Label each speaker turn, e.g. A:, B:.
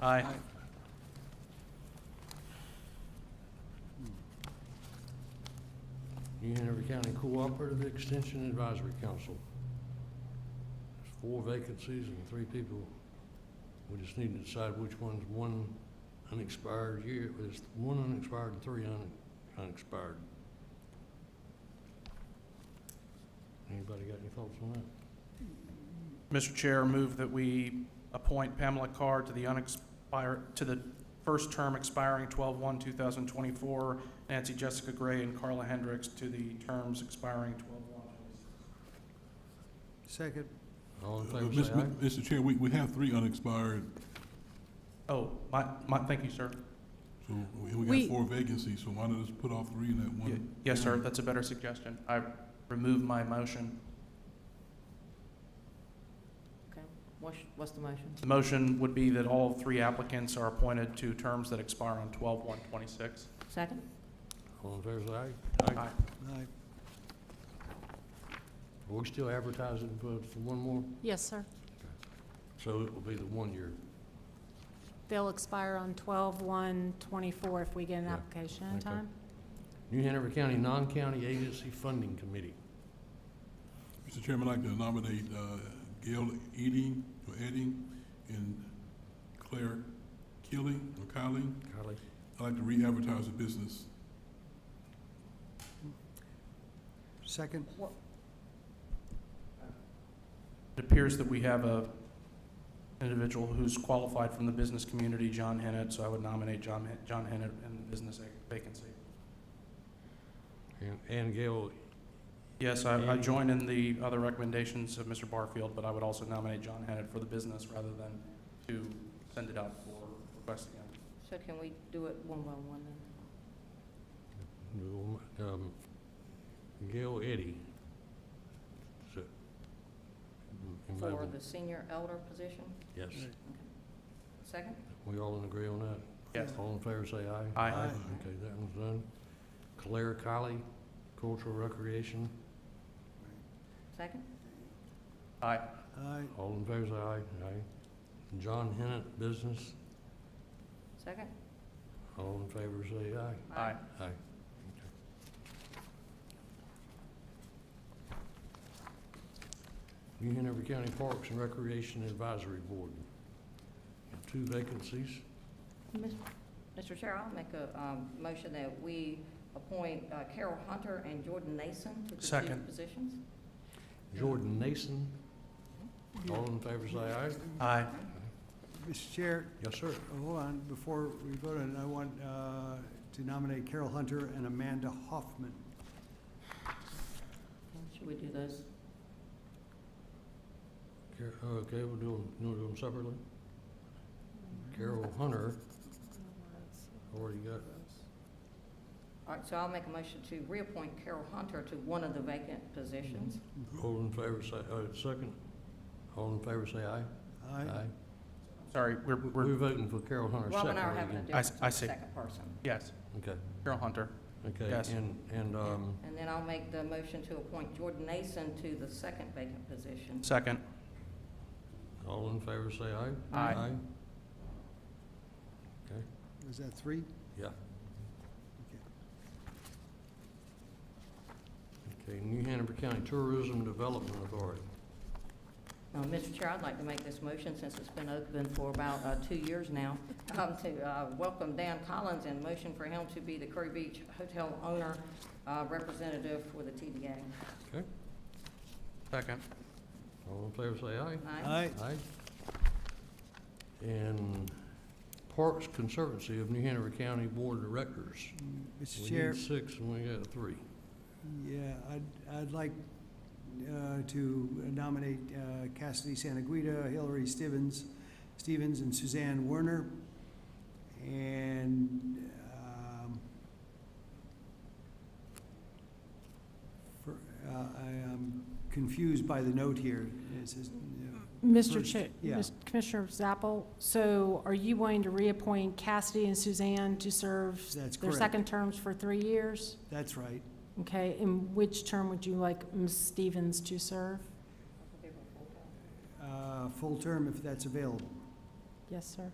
A: Aye.
B: Hanover County Cooperative Extension Advisory Council. There's four vacancies and three people. We just need to decide which one's one unexpired year, there's one unexpired and three un- unexpired. Anybody got any thoughts on that?
A: Mr. Chair, move that we appoint Pamela Carr to the unexpired, to the first term expiring 12/1/2024, Nancy Jessica Gray and Carla Hendricks to the terms expiring 12/1.
C: Second.
B: All in
D: Uh,
B: favor,
D: Mis-
B: say aye.
D: Mr. Chair, we, we have three unexpired,
A: Oh, my, my, thank you, sir.
D: so we- we
E: We-
D: got four vacancies, so why not just put off three in that
A: Ye-
D: one?
A: Yes, sir, that's a better suggestion. I remove my motion.
E: What's, what's the motion?
A: The motion would be that all three applicants are appointed to terms that expire on 12/1/26.
E: Second?
B: All in favor, say aye.
A: Aye.
C: Aye.
B: Are we still advertising for for one more?
F: Yes, sir.
B: So it will be the one year.
F: They'll expire on 12/1/24 if we get an
B: Yeah,
F: application in
B: okay.
F: time.
B: New Hanover County Non-County Agency Funding Committee.
D: Mr. Chairman, I'd like to nominate uh, Gail Eading, or Edding, and Claire Keeling, or Kylie.
B: Golly.
D: I'd like to re-advertise the business.
C: Second.
A: It appears that we have a individual who's qualified from the business community, John Hennett, so I would nominate John, Hen- John Hennett in the business vacancy.
B: And- And Gail,
A: Yes, I, I join in the other recommendations of Mr. Barfield, but I would also nominate John Hennett for the business rather than to send it out for request again.
E: So can we do it one by one then?
B: um, Gail Eddy. So- Am I-
E: For the senior elder position?
B: Yes,
E: Second?
B: we all in agree on that?
A: Yes.
B: All in favor, say aye.
A: Aye.
C: Aye.
B: Okay, that one's done. Claire Colley, Cultural Recreation,
E: Second?
A: Aye.
C: Aye.
B: all in favor, say aye. Aye. John Hennett, Business,
E: Second?
B: all in favor, say aye.
A: Aye.
B: Aye. New Hanover County Parks and Recreation Advisory Board. Two vacancies.
E: Mis- Mr. Chair, I'll make a um, motion that we appoint uh, Carol Hunter and Jordan Nason to the two
A: Second.
E: positions.
B: Jordan Nason, all in favor, say aye.
A: Aye.
C: Mr. Chair,
B: Yes, sir.
C: hold on, before we vote on it, I want uh, to nominate Carol Hunter and Amanda Hoffman.
E: Should we do those?
B: Car- uh, Okay, we'll do them, you wanna do them separately? Carol Hunter, already got,
E: All right, so I'll make a motion to reappoint Carol Hunter to one of the vacant positions.
B: all in favor, say, uh, second. All in favor, say aye.
C: Aye.
A: Sorry, we're,
B: We're
A: we're,
B: voting for Carol Hunter
E: Rob and I are
B: separately
E: having a
B: again.
A: I
E: different
A: s- I see.
E: second person.
A: yes,
B: Okay,
A: Carol Hunter. Yes.
B: okay, and, and, um,
E: And then I'll make the motion to appoint Jordan Nason to the second vacant position.
A: Second.
B: All in favor, say aye.
A: Aye.
B: Okay,
C: Is that three?
B: yeah.
C: Okay.
B: Okay, New Hanover County Tourism Development Authority.
E: Uh, Mr. Chair, I'd like to make this motion, since it's been open for about uh, two years now, um, to uh, welcome Dan Collins and motion for him to be the Curry Beach Hotel owner uh, representative for the TDA.
A: Second.
B: All in favor, say aye.
E: Aye.
B: Aye. And Parks Conservancy of New Hanover County Board of Directors.
C: Mm, Mr.
B: We
C: Chair,
B: need six and we got three.
C: yeah, I'd, I'd like uh, to nominate uh, Cassidy Santaguida, Hillary Stevens, Stevens and Suzanne Werner. And, um, for, uh, I am confused by the note here. It says, uh,
F: Mr.
C: First,
F: Chair,
C: yeah.
F: Mr. Commissioner Zappel, so are you wanting to reappoint Cassidy and Suzanne to serve
C: That's
F: their
C: correct.
F: second terms for three years?
C: that's right.
F: Okay, and which term would you like Ms. Stevens to serve?
C: Uh, Full term if that's available.
F: Yes, sir.